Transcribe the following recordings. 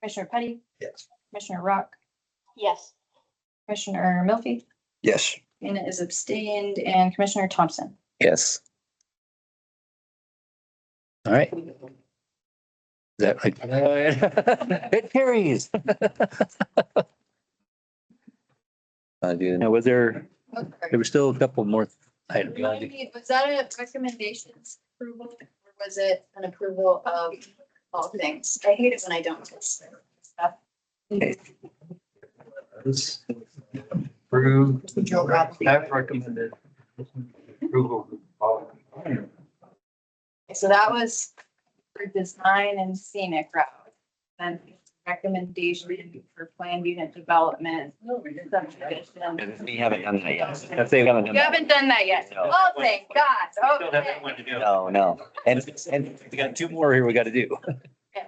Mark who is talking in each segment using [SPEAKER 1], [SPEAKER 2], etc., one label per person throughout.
[SPEAKER 1] Commissioner Petty,
[SPEAKER 2] Yes.
[SPEAKER 1] Commissioner Rock,
[SPEAKER 3] Yes.
[SPEAKER 1] Commissioner Milphy,
[SPEAKER 2] Yes.
[SPEAKER 1] Dana is abstained, and Commissioner Thompson.
[SPEAKER 4] Yes. All right. Is That like, it carries.
[SPEAKER 5] Uh, do,
[SPEAKER 4] Now, was there, there were still a couple more items.
[SPEAKER 3] Was that a recommendations approval or was it an approval of all things? I hate it when I don't. get stuff.
[SPEAKER 2] Approved.
[SPEAKER 3] Joe Robbins.
[SPEAKER 2] I've recommended approval. of
[SPEAKER 3] So that was
[SPEAKER 1] For design and scenic route, and recommendation for planned unit development. subdivision.
[SPEAKER 4] We haven't done that yet. If they haven't done
[SPEAKER 1] You
[SPEAKER 4] that.
[SPEAKER 1] haven't done that yet.
[SPEAKER 4] No.
[SPEAKER 1] Oh, thank God.
[SPEAKER 6] Still have that
[SPEAKER 1] Okay.
[SPEAKER 6] one to do.
[SPEAKER 4] No, no. And, and we got two more here we got to do.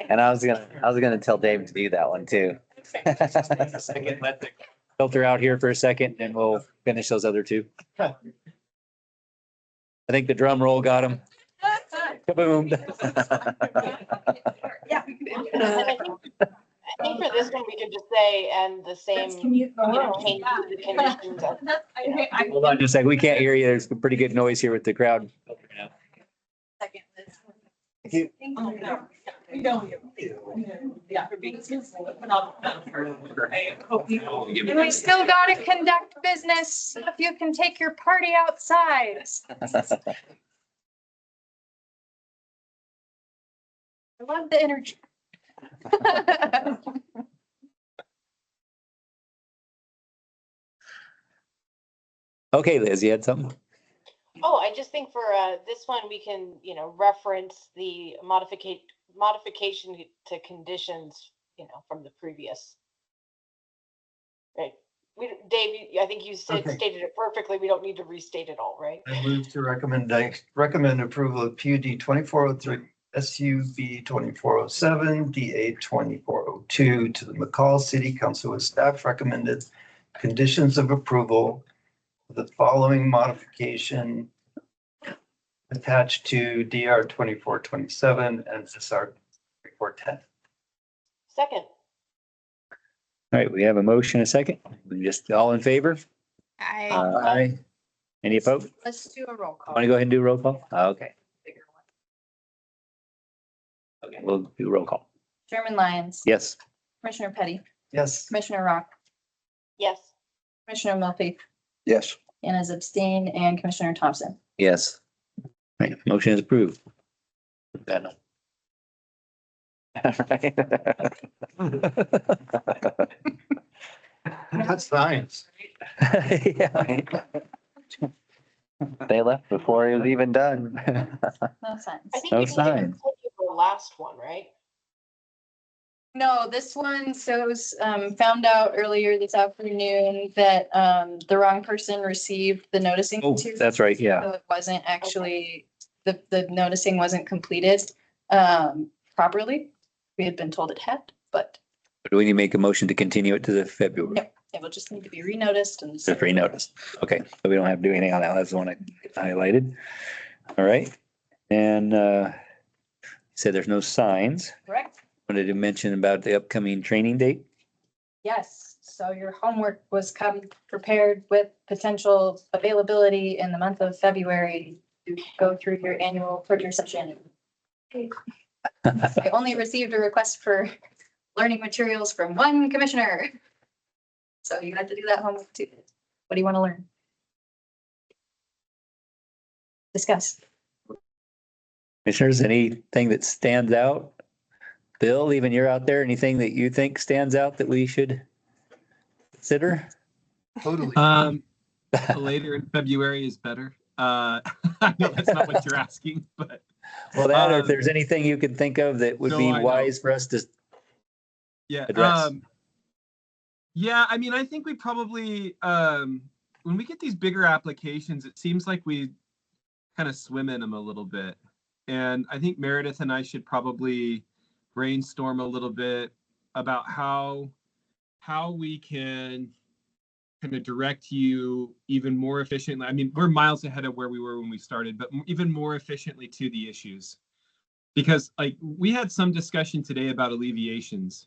[SPEAKER 5] and I was gonna, I was gonna tell Dave to do that one too.
[SPEAKER 6] A second, let the-
[SPEAKER 4] Filter out here for a second and we'll finish those other two. I think the drum roll got him. Kaboom.
[SPEAKER 1] Yeah.
[SPEAKER 3] I think for this one, we could just say, and the same,
[SPEAKER 1] commute
[SPEAKER 3] you know, change the conditions of
[SPEAKER 4] Hold on just a second. We can't hear you. There's pretty good noise here with the crowd.
[SPEAKER 1] Oh, We don't. Yeah.
[SPEAKER 6] oh,
[SPEAKER 1] And we still gotta conduct business. If you can take your party outside. I love the energy.
[SPEAKER 4] Okay, Liz, you had something?
[SPEAKER 3] Oh, I just think for uh, this one, we can, you know, reference the modificate, modification to conditions, you know, from the previous. Right, we, Dave, you- I think you said,
[SPEAKER 2] Okay.
[SPEAKER 3] stated it perfectly, we don't need to restate it all, right?
[SPEAKER 2] I move to recommend, recommend approval of PUD twenty-four oh three, SUB twenty-four oh seven, DA twenty-four oh two to the McCall City Council with staff recommended conditions of approval. with The following modification attached to DR twenty-four twenty-seven and SR twenty-four ten.
[SPEAKER 3] Second,
[SPEAKER 4] All right, we have a motion, a second. We Just all in favor?
[SPEAKER 1] I,
[SPEAKER 4] Aye. Any opposed?
[SPEAKER 1] let's do a roll call.
[SPEAKER 4] Want to go ahead and do a roll call? Oh, Okay. Okay, we'll do roll call.
[SPEAKER 1] Chairman Lyons.
[SPEAKER 4] Yes.
[SPEAKER 1] Commissioner Petty,
[SPEAKER 2] Yes.
[SPEAKER 1] Commissioner Rock,
[SPEAKER 3] yes,
[SPEAKER 1] Commissioner Murphy,
[SPEAKER 5] Yes.
[SPEAKER 1] and is abstained, and Commissioner Thompson.
[SPEAKER 5] Yes.
[SPEAKER 4] All Right, motion is approved. That no.
[SPEAKER 2] That's science.
[SPEAKER 4] Yeah.
[SPEAKER 5] They left before he was even done.
[SPEAKER 1] No sense.
[SPEAKER 3] I think
[SPEAKER 4] No
[SPEAKER 3] we didn't even
[SPEAKER 4] sign.
[SPEAKER 3] take it for the last one, right?
[SPEAKER 1] No, this one, so it was um, found out earlier this afternoon that um, the wrong person received the noticing.
[SPEAKER 4] Oh,
[SPEAKER 1] material,
[SPEAKER 4] that's right, yeah.
[SPEAKER 1] So it wasn't actually, the, the noticing wasn't completed um, properly. We had been told it had, but
[SPEAKER 4] Do we need to make a motion to continue it to the February?
[SPEAKER 1] it will just need to be renoticed and.
[SPEAKER 4] It's a free notice. Okay, so we don't have to do anything on that. That's the one I highlighted. All right, and uh, you said there's no signs.
[SPEAKER 1] Correct.
[SPEAKER 4] Wanted to mention about the upcoming training date.
[SPEAKER 1] Yes, so your homework was come prepared with potential availability in the month of February to go through your annual purger session. I only received a request for learning materials from one commissioner. So you had to do that homework too. What do you want to learn? Discuss.
[SPEAKER 4] Commissioners, anything that stands out? Bill, even you're out there, anything that you think stands out that we should consider?
[SPEAKER 2] Totally.
[SPEAKER 7] Um, later in February is better. Uh, I know that's not what you're asking, but
[SPEAKER 4] Well, that, or if
[SPEAKER 7] Um,
[SPEAKER 4] there's anything you could think of that would
[SPEAKER 7] no,
[SPEAKER 4] be
[SPEAKER 7] I know.
[SPEAKER 4] wise for us to,
[SPEAKER 7] yeah.
[SPEAKER 4] Address.
[SPEAKER 7] Um, yeah, I mean, I think we probably um, when we get these bigger applications, it seems like we kind of swim in them a little bit, and I think Meredith and I should probably brainstorm a little bit about how how we can kind of direct you even more efficiently. I mean, we're miles ahead of where we were when we started, but m- even more efficiently to the issues. Because like we had some discussion today about alleviations